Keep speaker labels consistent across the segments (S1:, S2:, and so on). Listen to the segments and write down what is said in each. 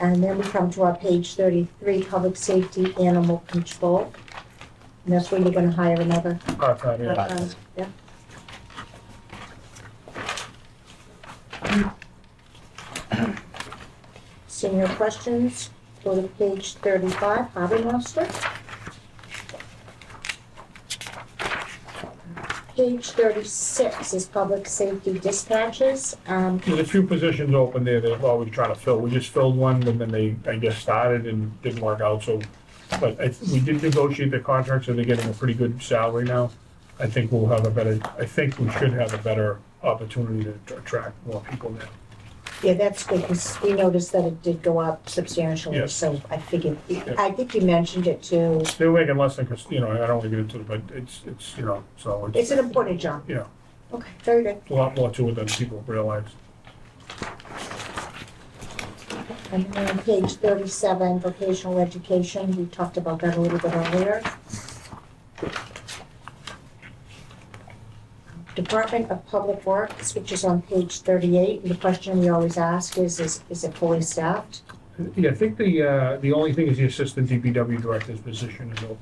S1: And then we come to our page thirty-three, public safety, animal control. And that's where you're gonna hire another.
S2: part-time, yeah.
S1: uh, Yeah. Seeing no questions, go to page thirty-five, harbor master. Page thirty-six is public safety dispatches. Um,
S2: There's a few positions open there that we're always trying to fill. We just filled one and then they, I guess, started and didn't work out, so. But I, we did negotiate the contract, so they're getting a pretty good salary now. I think we'll have a better, I think we should have a better opportunity to to attract more people now.
S1: Yeah, that's good, because we noticed that it did go up substantially,
S2: Yes.
S1: so I figured, I think you mentioned it too.
S2: They're making less than, Chris- you know, I don't want to get into it, but it's, it's, you know, so
S1: It's
S2: it's
S1: an important job.
S2: Yeah.
S1: Okay, very good.
S2: a lot more to it than people realize.
S1: And then on page thirty-seven, vocational education, we talked about that a little bit earlier. Department of Public Works, which is on page thirty-eight, and the question we always ask is, is, is it fully staffed?
S2: Yeah, I think the, uh, the only thing is the assistant DPW director's position is open.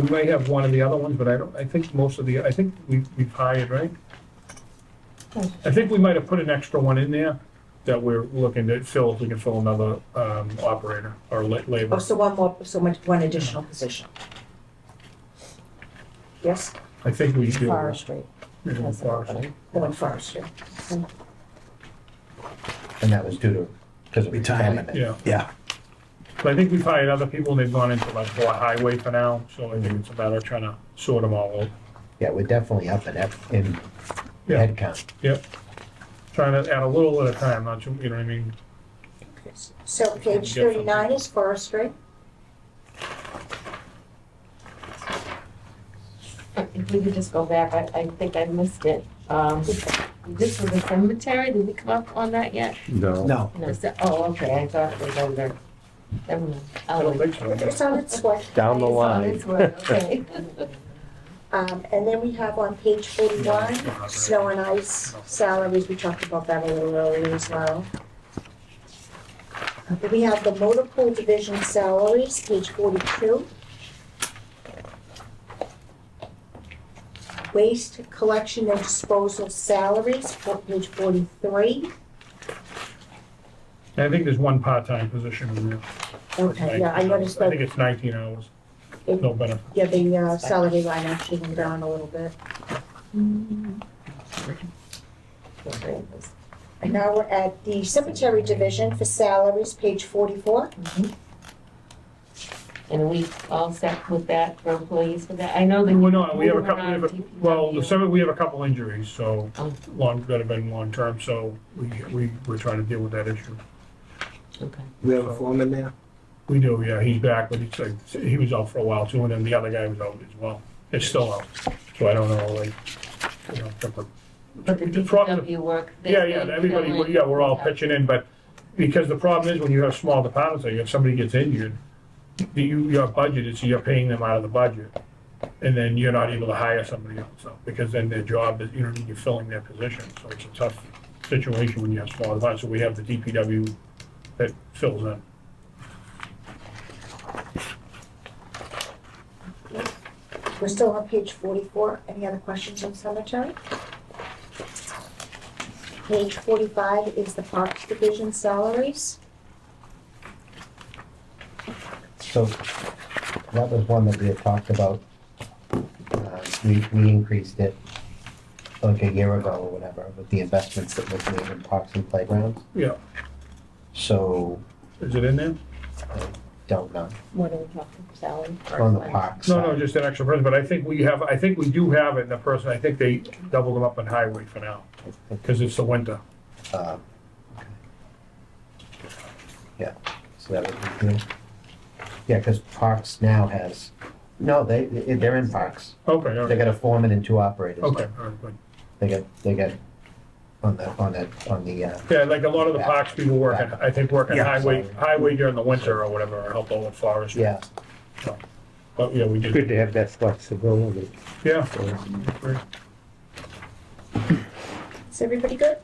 S2: We may have one of the other ones, but I don't, I think most of the, I think we, we've hired, right? I think we might have put an extra one in there that we're looking to fill, if we can fill another, um, operator or la-
S1: Oh,
S2: labor.
S1: so one more, so much, one additional position. Yes,
S2: I think we do.
S3: Forestry
S2: Yeah,
S3: has an
S2: forest.
S3: opening.
S1: the one first, yeah.
S4: And that was due to, because of
S5: Retirement.
S4: retirement.
S2: Yeah,
S5: Yeah,
S2: but I think we've hired other people and they've gone into like more highway for now, so I think it's a matter of trying to sort them all out.
S4: Yeah, we're definitely up in, ep- in
S2: Yeah.
S4: headcount.
S2: Yep. Trying to add a little at a time, not too, you know what I mean?
S1: So page thirty-nine is forestry.
S3: If we could just go back, I, I think I missed it. Um, this was a cemetery, did we come up on that yet?
S6: No.
S5: no,
S3: No, it's, oh, okay, I thought it was under, never mind.
S2: I
S1: Oh,
S3: I'll
S2: don't
S3: wait.
S2: think so.
S1: It's on its way.
S6: Down the
S2: Oh,
S3: It's on
S6: line.
S3: its way, okay.
S1: Um, and then we have on page forty-one, snow and ice salaries, we talked about that a little earlier as well. Then we have the motor pool division salaries, page forty-two. Waste collection and disposal salaries, for- page forty-three.
S2: And I think there's one part-time position in there.
S1: Okay, yeah, I noticed
S2: I
S1: that,
S2: think it's nineteen hours,
S1: it-
S2: no benefit.
S1: yeah, the uh, salary line actually went down a little bit.
S3: Mm-hmm.
S1: And now we're at the cemetery division for salaries, page forty-four.
S3: And we all set with that for employees for that? I know that.
S2: Well, no, we have a
S3: moving
S2: couple, we have a,
S3: around
S2: well, the
S3: DPW.
S2: summer, we have a couple injuries, so
S3: Oh.
S2: long, that have been long-term, so we, we, we're trying to deal with that issue.
S3: Okay.
S5: we have a foreman there.
S2: We do, yeah, he's back, but he's like, he was out for a while too, and then the other guy was out as well. It's still out, so I don't know, like, you know, if we're-
S3: But the
S2: The problem-
S3: DPW work. they-
S2: Yeah, yeah,
S3: they
S2: everybody,
S3: fill in.
S2: yeah, we're all pitching in, but because the problem is when you have small departments, like if somebody gets injured, the- you, your budget is, you're paying them out of the budget. And then you're not able to hire somebody else, so, because then their job is, you know, you're filling their position. So it's a tough situation when you have small departments. So we have the DPW that fills in.
S1: We're still on page forty-four. Any other questions on cemetery? Page forty-five is the parks division salaries.
S4: So that was one that we had talked about. Uh, We, we increased it like a year ago or whatever with the investments that was made in parks and playgrounds.
S2: Yeah,
S4: So,
S2: is it in there?
S4: don't know,
S3: What are we talking, salary?
S4: on the parks.
S2: No, no, just an extra person, but I think we have, I think we do have it in the person, I think they doubled them up in highway for now, because it's the winter.
S4: Uh, okay. Yeah, so that would be good. Yeah, because Parks now has, no, they, they're in Parks.
S2: Okay, all
S4: They
S2: right,
S4: got a foreman and two operators.
S2: okay, all right, good.
S4: They got, they got, on the, on the, on the, uh,
S2: Yeah, like a lot of the parks people work, at- I think work on
S5: Yeah.
S2: highway, highway during the winter or whatever, or help out with forestry.
S4: yeah,
S2: But, yeah, we
S6: Good
S2: did,
S6: to have that flexibility.
S2: yeah.
S1: Is everybody good?